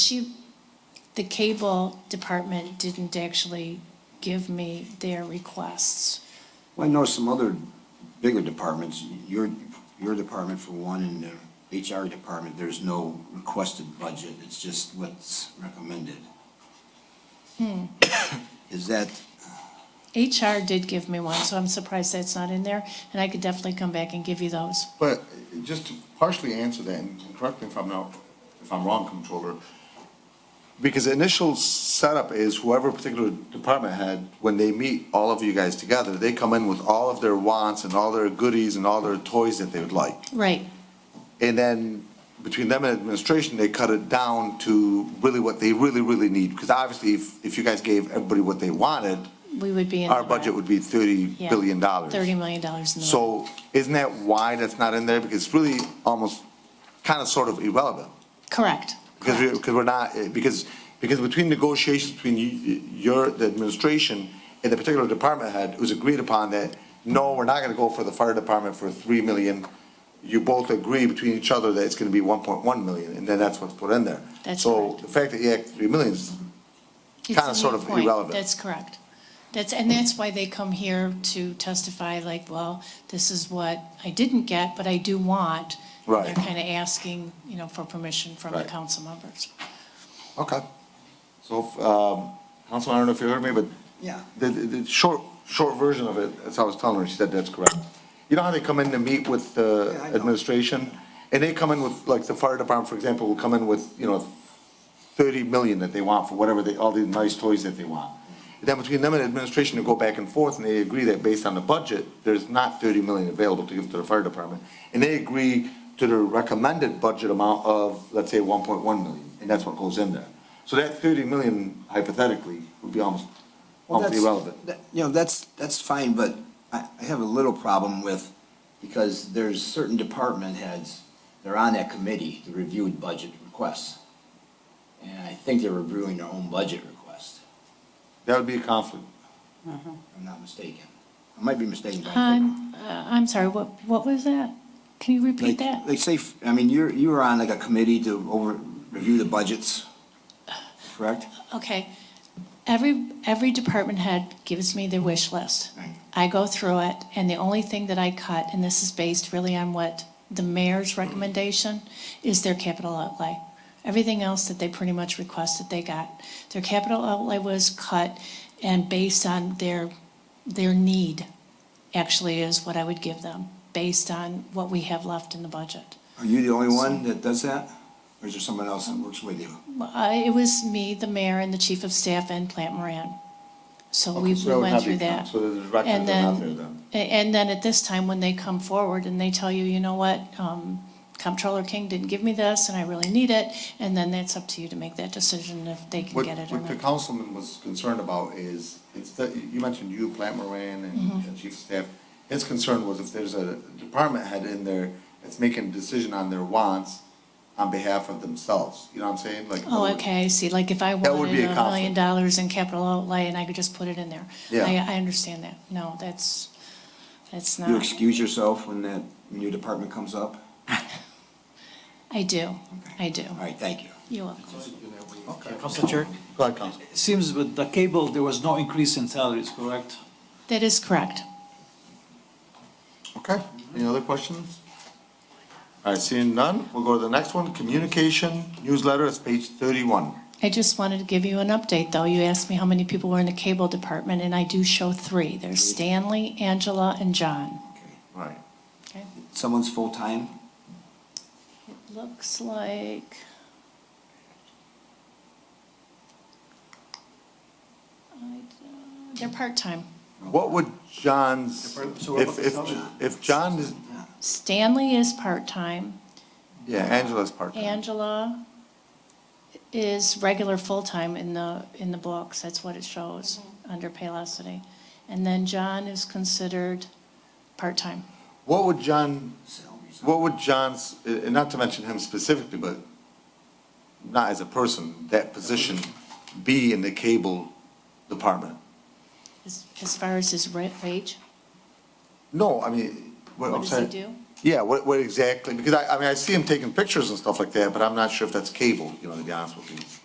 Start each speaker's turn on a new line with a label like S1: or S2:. S1: She, the cable department didn't actually give me their requests.
S2: Well, I know some other bigger departments, your, your department for one and the HR department, there's no requested budget, it's just what's recommended. Hmm. Is that,
S1: HR did give me one, so I'm surprised that's not in there, and I could definitely come back and give you those.
S3: But just to partially answer that, and correct me if I'm not, if I'm wrong, Controller, because the initial setup is whoever particular department head, when they meet all of you guys together, they come in with all of their wants and all their goodies and all their toys that they would like.
S1: Right,
S3: And then between them and administration, they cut it down to really what they really, really need. Because obviously, if, if you guys gave everybody what they wanted,
S1: we would be in. the
S3: our
S1: red.
S3: budget would be thirty
S1: Yeah,
S3: billion dollars.
S1: Thirty million dollars in the. red.
S3: So isn't that why that's not in there? Because it's really almost kind of sort of irrelevant.
S1: Correct.
S3: Because we,
S1: correct.
S3: because we're not, eh, because, because between negotiations between you, your, the administration and the particular department head, it was agreed upon that, no, we're not gonna go for the fire department for three million. You both agree between each other that it's gonna be one point one million, and then that's what's put in there.
S1: That's
S3: So
S1: correct.
S3: the fact that you act three million is
S1: It's
S3: kinda
S1: a
S3: sort
S1: moot
S3: of
S1: point.
S3: irrelevant.
S1: That's correct. That's, and that's why they come here to testify like, well, this is what I didn't get, but I do want. And
S3: Right.
S1: They're kind of asking, you know, for permission from the
S3: Right.
S1: council members.
S3: Okay. So, um, Councilman, I don't know if you heard me, but.
S2: Yeah.
S3: The, the, the short, short version of it, as I was telling her, she said that's correct. You know how they come in to meet with the
S2: Yeah, I know.
S3: administration? And they come in with, like, the fire department, for example, will come in with, you know, thirty million that they want for whatever they, all the nice toys that they want. Then between them and administration, they go back and forth, and they agree that based on the budget, there's not thirty million available to give to the fire department. And they agree to the recommended budget amount of, let's say, one point one million, and that's what goes in there. So that thirty million hypothetically would be almost,
S2: well,
S3: almost
S2: that's,
S3: irrelevant.
S2: that- you know, that's, that's fine, but I, I have a little problem with, because there's certain department heads, they're on that committee to review budget requests. And I think they're reviewing their own budget request,
S3: That would be a conflict.
S2: if I'm not mistaken. I might be mistaken, but I think.
S1: I'm, uh, I'm sorry, what, what was that? Can you repeat
S2: Like,
S1: that?
S2: like say, f- I mean, you're, you were on like a committee to over, review the budgets, correct?
S1: Okay, every, every department head gives me their wish list.
S2: Right.
S1: I go through it, and the only thing that I cut, and this is based really on what the mayor's recommendation, is their capital outlay. Everything else that they pretty much requested, they got. Their capital outlay was cut and based on their, their need, actually is what I would give them, based on what we have left in the budget.
S2: Are you the only one that does that? Or is there someone else that works with you?
S1: I- Uh, It was me, the mayor, and the chief of staff, and Plant Moran. So we
S3: Okay, so that
S1: we
S3: would
S1: went
S3: not be
S1: through
S3: count-
S1: that.
S3: So the directors
S1: And
S3: are
S1: then-
S3: not there then.
S1: A- And then at this time, when they come forward and they tell you, you know what, um, Comptroller King didn't give me this, and I really need it, and then that's up to you to make that decision if they can
S3: What,
S1: get it or
S3: what the
S1: not.
S3: councilman was concerned about is, instead, you mentioned you, Plant Moran, and
S1: Mm-hmm.
S3: and Chief of Staff. His concern was if there's a department head in there that's making a decision on their wants on behalf of themselves, you know what I'm saying? Like,
S1: Oh, okay, I see, like if I
S3: That would
S1: wanted
S3: be a
S1: a million
S3: conflict.
S1: dollars in capital outlay and I could just put it in there.
S3: Yeah.
S1: I, I understand that. No, that's, that's
S2: You
S1: not,
S2: excuse yourself when that, when your department comes up?
S1: I do, I do.
S2: All right, thank you.
S1: You're welcome.
S4: Council Chair,
S3: Go ahead, Councilman.
S4: it seems with the cable, there was no increase in salaries, correct?
S1: That is correct.
S3: Okay, any other questions? All right, seeing none, we'll go to the next one, communication newsletter, it's page thirty-one.
S1: I just wanted to give you an update, though. You asked me how many people were in the cable department, and I do show three. There's Stanley, Angela, and John.
S2: Okay.
S3: Right.
S1: Okay.
S2: Someone's full-time?
S1: It looks like. I don't- They're part-time.
S3: What would John's,
S4: So what about
S3: if,
S4: the
S3: if,
S4: salary?
S3: if John is,
S1: Stanley is part-time.
S3: yeah, Angela's part-time.
S1: Angela is regular full-time in the, in the books, that's what it shows, under Paylocity. And then John is considered part-time.
S3: What would John,
S2: Salaries.
S3: what would John's, and not to mention him specifically, but not as a person, that position be in the cable department?
S1: As, as far as his ra- wage,
S3: No, I mean, what,
S1: what
S3: I'm
S1: does he
S3: sorry,
S1: do?
S5: Yeah, what, what exactly, because I, I mean, I see him taking pictures and stuff like that, but I'm not sure if that's cable, you know, to be honest with you.